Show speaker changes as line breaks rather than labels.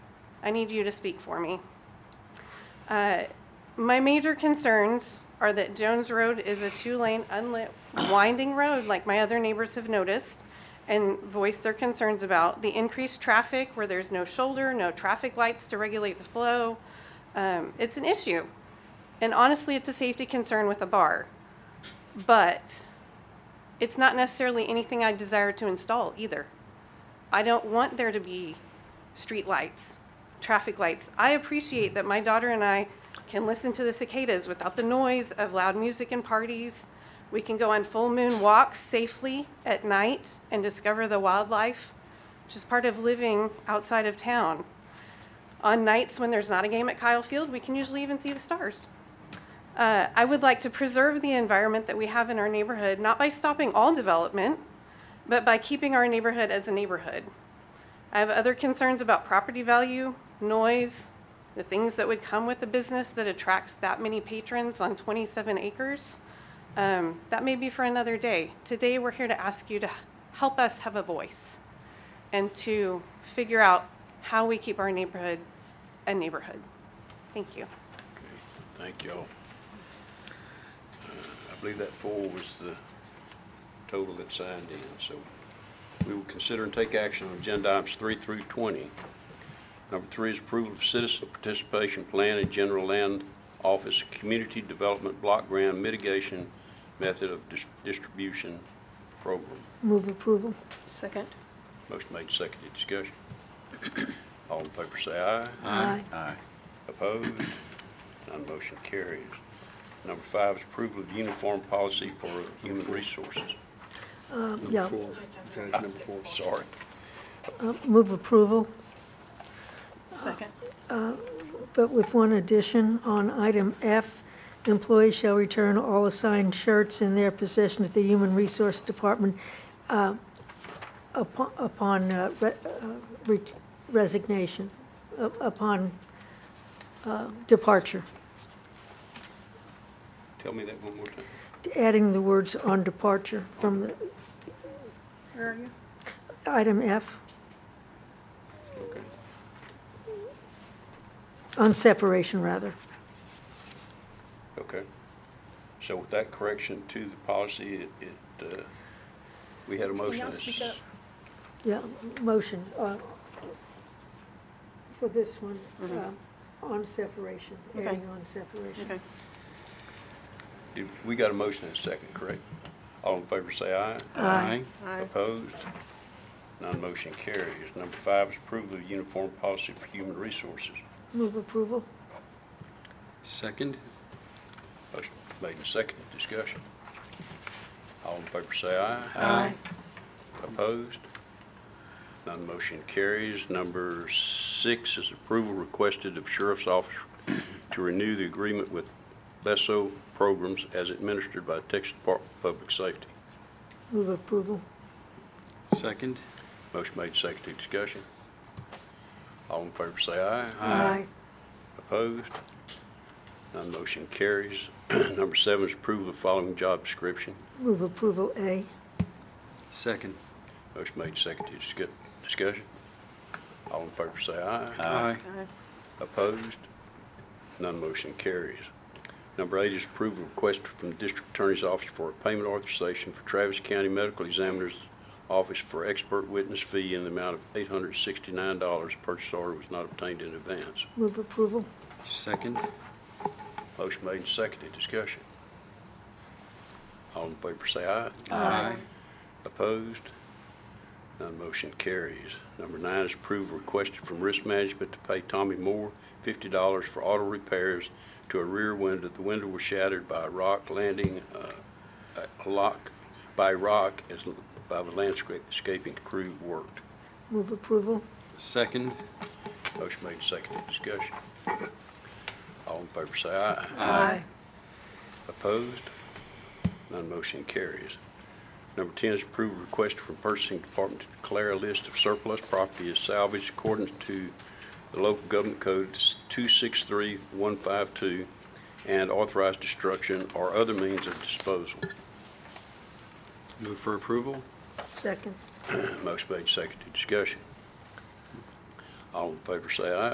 I need you to speak for me. Uh, My major concerns are that Jones Road is a two-lane unlit winding road, like my other neighbors have noticed, and voiced their concerns about the increased traffic where there's no shoulder, no traffic lights to regulate the flow. Um, It's an issue. And honestly, it's a safety concern with a bar. But it's not necessarily anything I desire to install either. I don't want there to be streetlights, traffic lights. I appreciate that my daughter and I can listen to the cicadas without the noise of loud music and parties. We can go on full moon walks safely at night and discover the wildlife, which is part of living outside of town. On nights when there's not a game at Kyle Field, we can usually even see the stars. Uh, I would like to preserve the environment that we have in our neighborhood, not by stopping all development, but by keeping our neighborhood as a neighborhood. I have other concerns about property value, noise, the things that would come with a business that attracts that many patrons on 27 acres. Um, That may be for another day. Today, we're here to ask you to help us have a voice and to figure out how we keep our neighborhood a neighborhood. Thank you.
Okay, thank y'all. Uh, I believe that four was the total that signed in, so we will consider and take action on agenda items three through 20. Number three is approval of citizen participation plan and general land office community development block grant mitigation method of dis- distribution program.
Move approval.
Second.
Motion made, seconded, discussion. All in favor say aye.
Aye.
Aye.
Opposed? None motion carries. Number five is approval of uniform policy for human resources.
Yeah,
Four, Judge number four.
Sorry.
move approval,
Second.
but with one addition on item F. Employees shall return all assigned shirts in their possession to the Human Resource Department uh, upo- upon uh, re- uh, re- resignation, up- upon uh, departure.
Tell me that one more time.
Adding the words "on departure" from the
Where are you?
item F,
Okay.
on separation, rather.
Okay. So with that correction to the policy, it- it, uh, we had a motion.
y'all
that's-
speak up?
Yeah, motion, uh, for this one, uh, on separation,
Mm-hmm. Okay.
adding on separation.
Okay.
did- We got a motion and a second, correct? All in favor say aye.
Aye.
Opposed? None motion carries. Number five is approval of uniform policy for human resources.
Move approval?
Second?
Motion made and seconded, discussion. All in favor say aye.
Aye.
Opposed? None motion carries. Number six is approval requested of Sheriff's Office to renew the agreement with LESO programs as administered by Texas Department of Public Safety.
Move approval,
Second?
Motion made, seconded, discussion. All in favor say aye.
aye.
Opposed? None motion carries. Number seven is approval of following job description.
Move approval A,
Second?
Motion made, seconded, discu- discussion. All in favor say aye.
Aye.
Opposed? None motion carries. Number eight is approval request from District Attorney's Office for a payment authorization for Travis County Medical Examiner's Office for expert witness fee in the amount of $869. Purchase order was not obtained in advance.
move approval,
Second?
Motion made and seconded. Discussion. All in favor say aye.
Aye.
Opposed? None motion carries. Number nine is approval requested from Risk Management to pay Tommy Moore $50 for auto repairs to a rear window. The window was shattered by a rock landing, uh, a lock, by rock as, l- by the landscaping crew worked.
move approval,
Second?
Motion made, seconded, discussion. All in favor say aye.
Aye.
Opposed? None motion carries. Number 10 is approve a request from purchasing department to declare a list of surplus property as salvage according to the local government code 263152 and authorize destruction or other means of disposal.
Move for approval?
second.
Motion made, seconded, discussion. All in favor say aye.